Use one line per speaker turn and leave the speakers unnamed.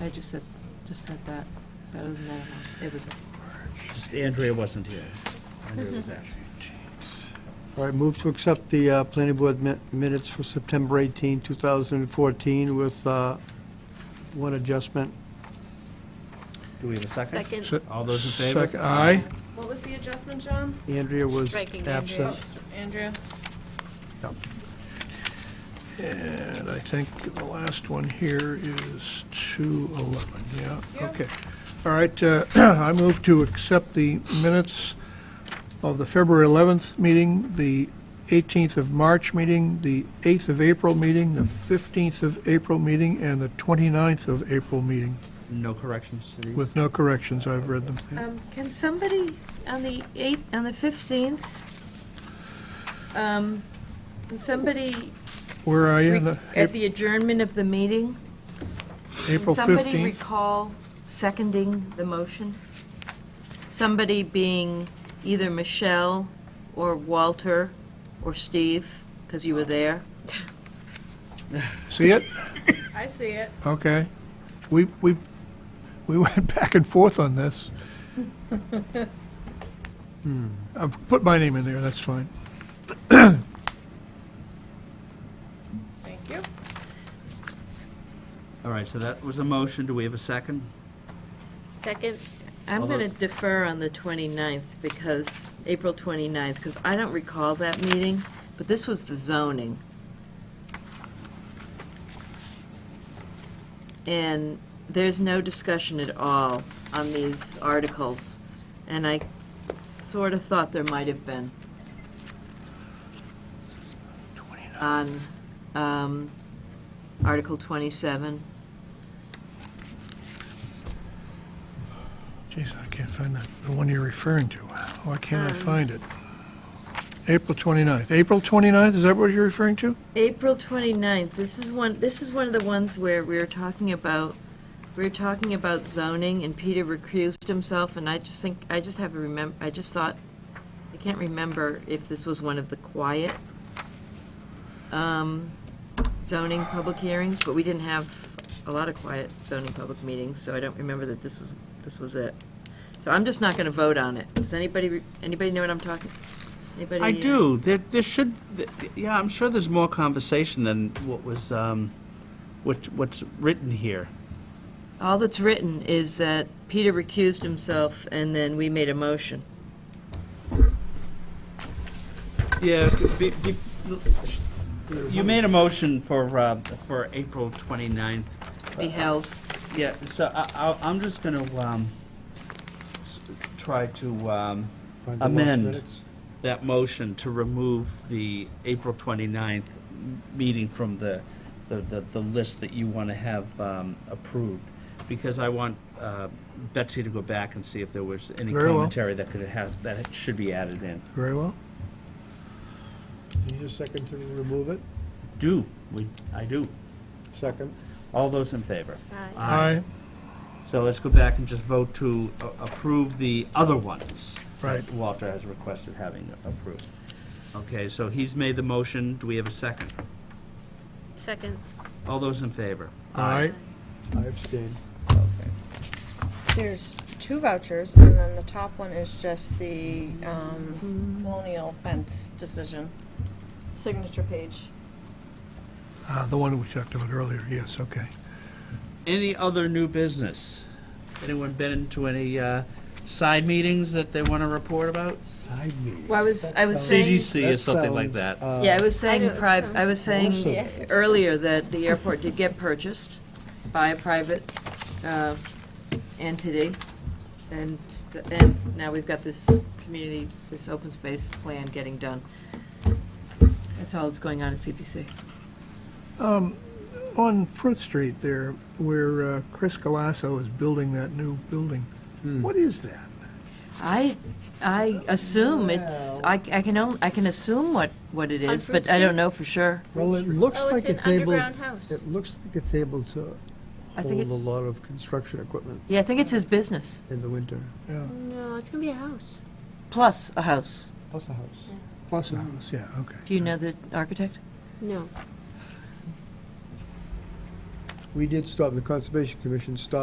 I just said, just said that, but other than that, it was,
Just Andrea wasn't here. Andrea was absent.
All right, move to accept the uh, planning board mi- minutes for September 18, 2014, with uh, one adjustment.
Do we have a second?
Second.
All those in favor?
Sec- Aye.
What was the adjustment, John?
Andrea was
Striking Andrea.
absent.
Andrea?
And I think the last one here is 211, yeah,
Yeah.
okay. All right, uh, I move to accept the minutes of the February 11th meeting, the 18th of March meeting, the 8th of April meeting, the 15th of April meeting, and the 29th of April meeting,
No corrections to these?
with no corrections, I've read them. yeah.
Um, can somebody on the eighth, on the fifteenth, um, can somebody,
Where are you?
re- at the adjournment of the meeting,
April
can somebody
15th?
recall seconding the motion? Somebody being either Michelle or Walter or Steve, because you were there.
See it?
I see it.
Okay. We, we, we went back and forth on this. I'll put my name in there, that's fine.
Thank you.
All right, so that was a motion. Do we have a second?
Second,
I'm
Although-
going to defer on the 29th because, April 29th, because I don't recall that meeting, but this was the zoning. And there's no discussion at all on these articles, and I sort of thought there might have been. On um, Article 27.
Jeez, I can't find that, the one you're referring to. Why can't I
Um.
find it? April 29th. April 29th, is that what you're referring to?
April 29th, this is one, this is one of the ones where we were talking about, we were talking about zoning, and Peter recused himself, and I just think, I just have a remem, I just thought, I can't remember if this was one of the quiet um, zoning public hearings, but we didn't have a lot of quiet zoning public meetings, so I don't remember that this was, this was it. So I'm just not gonna vote on it. Does anybody, re- anybody know what I'm talking? Anybody?
I
uh,
do. There, there should, th- yeah, I'm sure there's more conversation than what was, um, what, what's written here.
All that's written is that Peter recused himself, and then we made a motion.
Yeah, be- be- you made a motion for, uh, for April 29th.
to Be held.
Yeah, so I, I, I'm just gonna, um, s- try to, um,
Find the last
Amend.
minutes.
that motion to remove the April 29th m- meeting from the, the, the the list that you want to have um, approved, because I want uh, Betsy to go back and see if there was any
Very well.
commentary that could have, that should be added in.
Very well.
Need a second to remove it?
Do, we, I do.
Second.
All those in favor?
aye.
Aye.
Aye,
So let's go back and just vote to a- approve the other ones.
Right.
that Walter has requested having approved. Okay, so he's made the motion. Do we have a second?
Second,
All those in favor?
aye.
I abstain.
There's two vouchers, and then the top one is just the um, colonial fence decision, signature page.
Ah, The one we talked about earlier, yes, okay.
Any other new business? Anyone been to any uh, side meetings that they want to report about?
Side meeting.
Well, I was- I was
That
saying-
CDC or
sounds-
something like
sounds,
that.
uh,
Yeah, I was
I
saying,
know, it
priv- I was
sounds
saying
awesome.
earlier that the airport did get purchased by a private uh, entity, and, and now we've got this community, this open space plan getting done. That's all that's going on at CPC.
On Front Street there, where uh, Chris Galasso is building that new building,
Hmm.
what is that?
I, I assume it's, I, I can, on- I can assume what, what it
On
is,
Fruit
but I don't
Street?
know for sure.
Well, it looks
Oh,
like
it's an
it's able,
underground
it
house.
looks like it's able to
I think
hold a
it-
lot of construction equipment
Yeah, I think it's his business,
in the winter.
Yeah,
No, it's gonna be a house.
plus a house.
Plus a house.
plus a house, yeah, okay.
Do you know the architect?
No.
we did stop, the Conservation Commission stopped